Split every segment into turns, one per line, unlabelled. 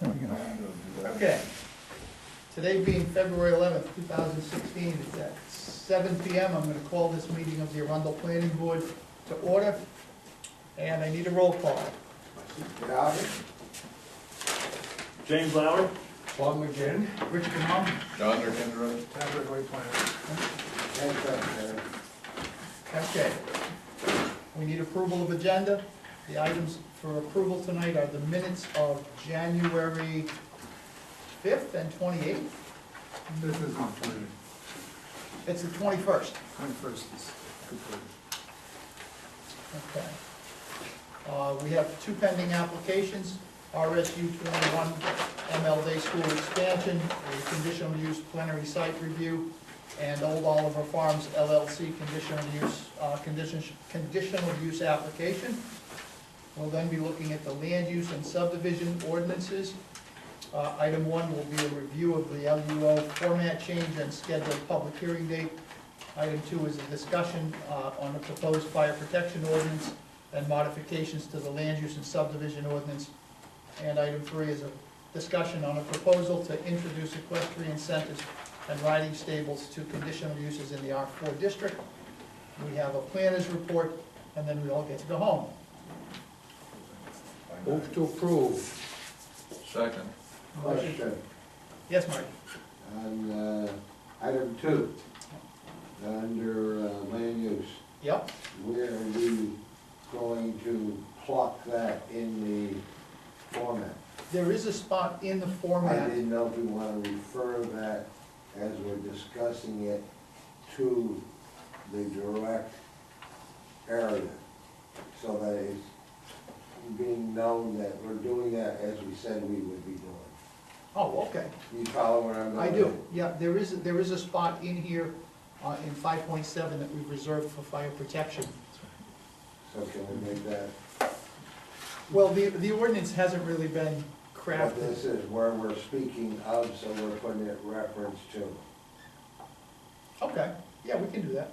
There we go.
Okay. Today being February eleventh, two thousand sixteen, it's at seven P M. I'm gonna call this meeting of the Arundel Planning Board to order. And I need a roll call.
James Lauer?
Plum again.
Rich Canal,
John or Kendra?
Patrick White Planner.
okay. We need approval of agenda. The items for approval tonight are the minutes of January fifth and twenty-eighth.
This is not true.
It's the twenty-first.
I'm first is good for
Okay. Uh, We have two pending applications, RSU 21 MLD School Expansion, a conditional use plenary site review, and Old Oliver Farms LLC conditional use, uh, condition- conditional use application. We'll then be looking at the land use and subdivision ordinances. Uh, Item one will be a review of the LUO format change and scheduled public hearing date. Item two is a discussion uh, on the proposed fire protection ordinance and modifications to the land use and subdivision ordinance. And item three is a discussion on a proposal to introduce equestrian centers and riding stables to conditional uses in the R4 district. We have a planner's report, and then we all get to go home.
you. Move to approve.
Second.
Question
Yes, Marty?
on uh, item two, under uh, land use.
Yep,
Where are we going to pluck that in the format?
there is a spot in the
I
format.
didn't know if we want to refer that as we're discussing it to the direct area. So that it's being known that we're doing that as we said we would be doing.
Oh, okay.
You follow where I'm going?
I do, yeah, there is, there is a spot in here, uh, in five point seven that we've reserved for fire protection.
So can we make that
Well, the, the ordinance hasn't really been
But this
crafted.
is where we're speaking of, so we're putting it reference to.
Okay, yeah, we can do that.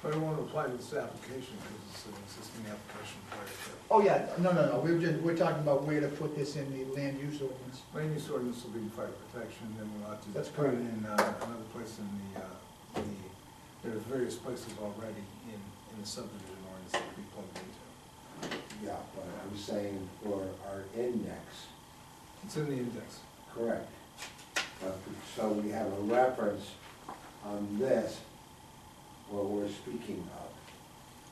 But it won't apply to this application because it's an existing application prior to.
Oh, yeah, no, no, no, we were just, we're talking about where to put this in the land use ordinance.
Land use ordinance will be fire protection, then we'll have to.
That's
put it
correct.
In uh, another place in the, uh, the, there are various places already in, in the subdivision ordinance that we plugged into.
Yeah, but I'm saying for our index,
It's in the index.
correct? But- So we have a reference on this, what we're speaking of.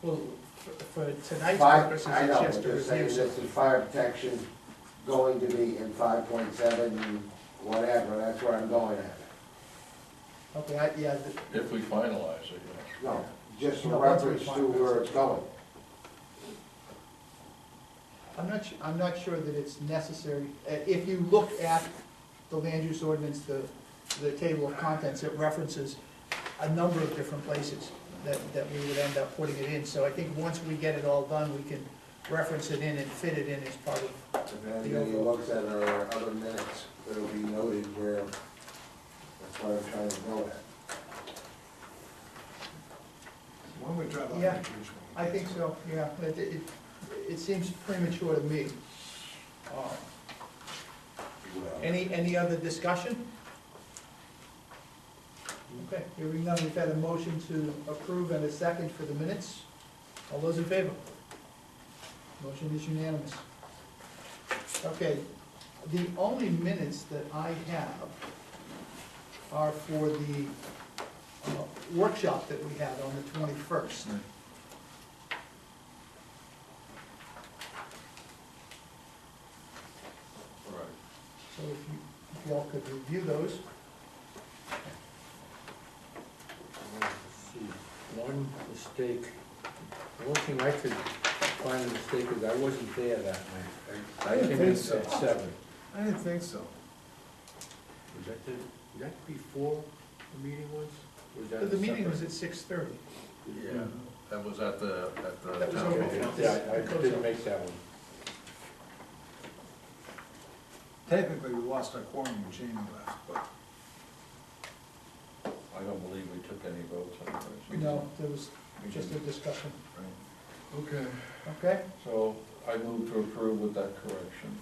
Well, for- for tonight's
Five-
purposes,
I know,
it's just
but
a
they're saying
review.
this
so-
is fire protection going to be in five point seven, whatever, that's where I'm going at. it.
Okay, I, yeah, the-
If we finalize it, yeah.
No, just a
No, that's
reference
fine.
to where it's going.
I'm not, su- I'm not sure that it's necessary. Uh, If you look at the land use ordinance, the, the table of contents, it references a number of different places that, that we would end up putting it in. So I think once we get it all done, we can reference it in and fit it in as part of,
And then when he looks at our other minutes, it'll be noted where, that's what I'm trying to go at.
One way drive, I
Yeah,
think which one.
I think so, yeah. It, it, it seems premature to me. Uh,
Well,
Any, any other discussion? Okay, hearing none, we've had a motion to approve and a second for the minutes. All those in favor? Motion is unanimous. Okay, the only minutes that I have are for the uh, workshop that we had on the twenty-first.
Right.
So if you, if y'all could review those.
See, One mistake, the one thing I could find a mistake is I wasn't there that night. I- I came in at
so.
seven.
I didn't think so.
Was that the, was that before the meeting was? Was that
The meeting was
separate?
at six-thirty.
Yeah, that was at the, at
Oh,
the.
That was
town
over.
hall.
Yeah, I didn't make that one.
Technically, we lost our quorum when Jamie left, but
I don't believe we took any votes on this.
No, there was
we
just
just,
a discussion,
right.
Okay.
okay?
So I move to approve with that correction.